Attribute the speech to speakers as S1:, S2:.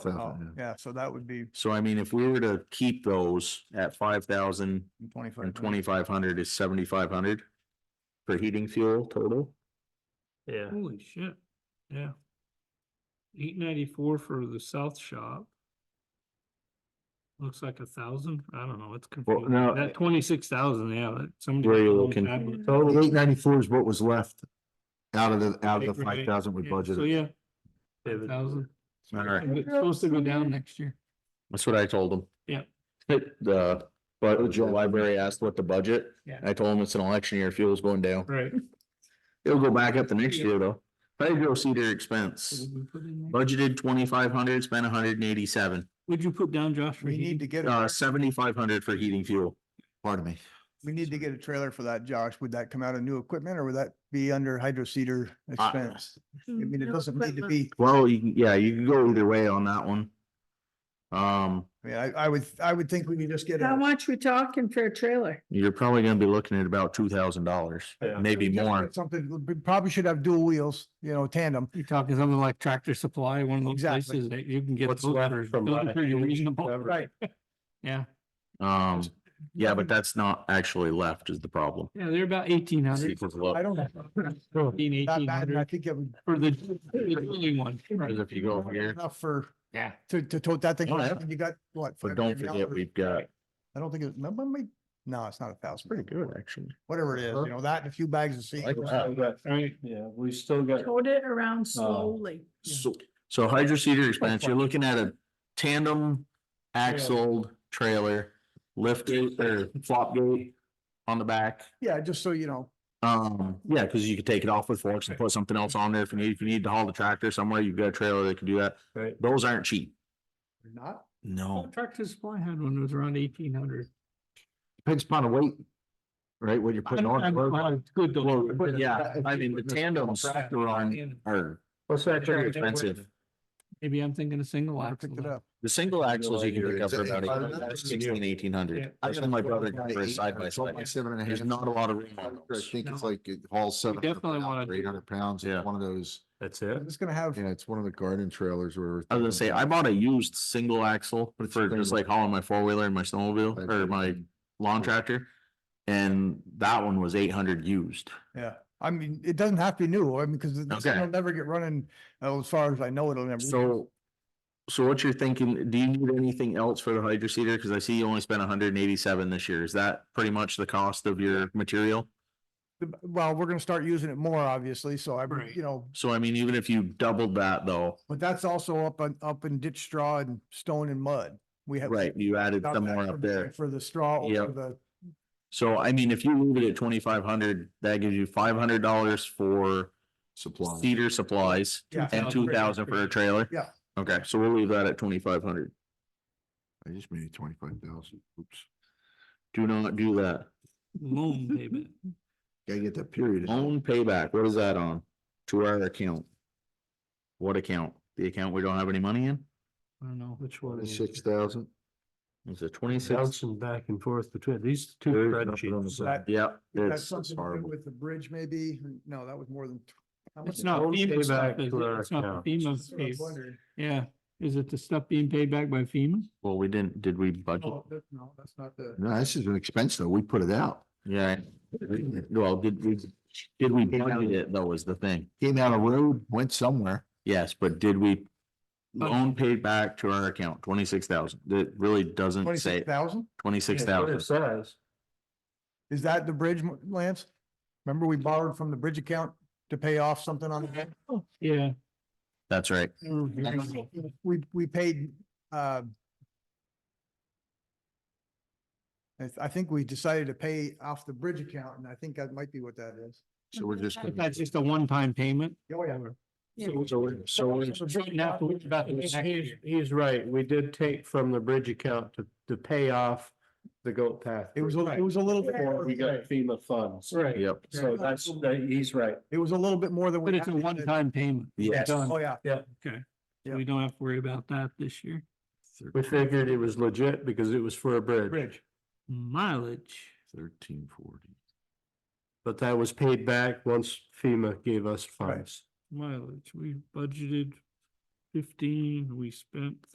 S1: Oh,
S2: Thousand, yeah.
S1: yeah, so that would be
S2: So I mean, if we were to keep those at five thousand
S1: twenty-five.
S2: and twenty-five hundred is seventy-five hundred for heating fuel total?
S3: Yeah,
S4: Holy shit, yeah. Eight ninety-four for the south shop. Looks like a thousand, I don't know, it's confusing,
S2: no, I-
S4: that twenty-six thousand, yeah, that- somebody.
S2: Where
S4: got
S2: you
S4: their own
S2: looking? Oh,
S4: tablet.
S2: Total eight ninety-four is what was left out of the, out of the
S4: Right, right.
S2: five thousand we
S4: Yeah, So,
S2: budgeted.
S4: yeah,
S3: Yeah, but-
S4: thousand,
S2: All right,
S4: it's supposed to go down next year.
S2: that's what I told them.
S4: Yeah.
S2: The, but Joe Library asked what the budget.
S4: Yeah.
S2: I told him it's an election year, fuel's going down.
S4: Right.
S2: It'll go back up the next year though. Pedro Cedar expense, budgeted twenty-five hundred, spent hundred and eighty-seven.
S4: Would you put down Josh? for
S1: We need
S4: heating?
S1: to get,
S2: Uh,
S1: a
S2: seventy-five hundred for heating fuel. Pardon me.
S1: we need to get a trailer for that, Josh. Would that come out of new equipment or would that be under hydro seeder
S2: Uh,
S1: expense?
S4: Mm.
S1: I mean, it doesn't need to be,
S2: Well, you can, yeah, you can go either way on that one. Um,
S1: I mean, I, I would, I would think we could just get
S5: How
S1: a.
S5: much we talking for a trailer?
S2: you're probably gonna be looking at about two thousand dollars,
S3: Yeah.
S2: maybe
S1: just
S2: more.
S1: get Something, we probably should have dual wheels, you know, tandem.
S4: You're talking something like Tractor Supply, one of those
S1: Exactly.
S4: places that you can get.
S3: What's
S4: those
S3: left
S4: for-
S3: from
S4: those are
S3: last
S4: Pretty
S3: year's
S4: reasonable.
S3: cover. Right.
S4: Yeah,
S2: Um, yeah, but that's not actually left is the problem.
S4: yeah, they're about eighteen hundred.
S2: Equals left.
S1: I don't know.
S4: Eighteen,
S1: That
S4: eighteen
S1: bad, and I
S4: hundred
S1: think it would.
S4: for the, for the drilling one.
S2: Because if you go here,
S1: Enough for,
S4: Yeah.
S1: to, to tote that thing.
S2: Oh, yeah.
S1: around. You got what?
S2: but don't
S1: $500?
S2: forget, we've got,
S1: I don't think it, no, but maybe- no, it's not a
S2: pretty
S1: thousand,
S2: good actually.
S1: whatever it is, you know, that and a few bags of seed.
S2: Like that.
S4: All right,
S3: Yeah, we still got,
S5: Tote it
S3: Uh,
S5: around slowly.
S2: So, so hydro seeder expense, you're looking at a tandem axle trailer, lift gate or flop gate on the back.
S1: Yeah, just so you know.
S2: Um, yeah, cause you could take it off with forks and put something else on there if you need, if you need to haul the tractor somewhere, you've got a trailer that can do that.
S3: Right.
S2: Those aren't cheap.
S1: You're Not,
S3: oh.
S2: No.
S4: Tractor Supply had one that was around eighteen hundred.
S2: Depends upon the weight. Right, what you're putting on.
S4: Good though.
S2: Well, but yeah, I mean, the tandems are on, are
S3: what's that?
S2: pretty expensive.
S4: Maybe I'm thinking a single
S1: I
S4: axle.
S1: picked it
S4: then.
S1: up.
S2: The single axles you can pick up for about
S3: Yeah.
S2: eight- that's sixteen, eighteen hundred. I got my brother for a side by side.
S6: uh, Seven and a half.
S2: There's not a lot of room
S6: I
S2: on those.
S6: think it's
S4: No.
S6: like it hauls
S4: We
S6: seven.
S4: definitely wanna do-
S6: Eight hundred pounds,
S2: Yeah.
S6: it's one of those,
S3: That's
S1: I'm
S3: it?
S1: just gonna have,
S6: yeah, it's one of the garden trailers where.
S2: I was gonna say, I bought a used single axle
S6: But it's
S2: for just
S6: available.
S2: like hauling my four wheeler and my snowmobile or my lawn tractor. And that one was eight hundred used.
S1: yeah, I mean, it doesn't have to be new, I mean, because
S2: Okay.
S1: it'll never get running, uh, as far as I know, it'll never.
S2: So, so what you're thinking, do you need anything else for the hydro seeder? Cause I see you only spent hundred and eighty-seven this year. Is that pretty much the cost of your material?
S1: Well, we're gonna start using it more, obviously, so I,
S4: Right.
S1: you know,
S2: So I mean, even if you doubled that though,
S1: but that's also up on, up in ditch straw and stone and mud. We have.
S2: right, you added
S1: got
S2: some
S1: that
S2: more
S1: for-
S2: up there.
S1: For the straw
S2: Yeah.
S1: or the,
S2: So I mean, if you leave it at twenty-five hundred, that gives you five hundred dollars for
S6: Supply.
S2: cedar supplies
S1: yeah,
S2: and two thousand for a trailer?
S1: Yeah.
S2: Okay, so we'll leave that at twenty-five hundred.
S6: I just made twenty-five thousand, oops,
S2: Do not do that.
S4: Loan payment.
S6: gotta get that period.
S2: Own payback, what is that on? To our account? What account? The account we don't have any money in?
S4: I don't know.
S3: Which one is
S6: Six
S3: it?
S6: thousand,
S2: It's a twenty-six.
S3: Bouncing back and forth between these two
S6: There's nothing on the
S3: spreadsheets.
S6: side.
S2: Yep,
S1: that's
S2: it's,
S1: something to do
S6: horrible.
S1: with the bridge maybe, or- no, that was more than. tw- how much
S4: It's
S1: is
S4: not
S3: Loan
S4: FEMA stuff,
S3: payback
S4: is it?
S3: to our
S4: It's not
S3: account.
S4: the
S1: that?
S4: FEMA
S1: That's what I was
S4: piece.
S1: wondering.
S4: Yeah, is it the stuff being paid back by FEMA?
S2: well, we didn't, did we budget?
S1: Oh, that- No, that's not the.
S6: no, this is an expense though, we put it out,
S2: Yeah. I- Well, did we, did we budget it though is the thing.
S6: came down a road, Oh. went somewhere.
S2: Yes, but did we?
S4: But-
S2: Loan paid back to our account, twenty-six thousand. That really doesn't say
S1: Twenty-six thousand?
S2: twenty-six
S3: Yeah, what it
S2: thousand.
S3: Says.
S1: Is that the bridge, Mo- Lance? Remember we borrowed from the bridge account to pay off something on, the
S4: Yeah.
S2: That's right.
S4: Mm-hmm.
S1: we, we paid, uh, I, th- I think we decided to pay off the bridge account and I think that might be what that is.
S6: So we're just. gonna-
S4: That's just a one-time payment.
S1: Oh, yeah.
S4: So,
S2: So, we're- so we're-
S4: so we have to worry about the next
S3: He's, he's-
S4: year.
S3: he's right. We did take from the bridge account to, to pay off the goat path.
S1: It was, a- it was a little bit more,
S3: We got FEMA funds.
S4: Right,
S2: yep,
S3: So that's, that- he's right.
S1: it was a little bit more than. we
S4: but it's a
S1: had in the-
S4: one-time payment.
S2: Yes.
S4: Done.
S1: Oh, yeah.
S4: So We don't have to worry about that this year.
S3: We figured it was legit because it was for a bridge,
S1: Bridge.
S4: Mileage.
S6: Thirteen forty.
S3: but that was paid back once FEMA gave us funds.
S4: mileage, we budgeted fifteen, we spent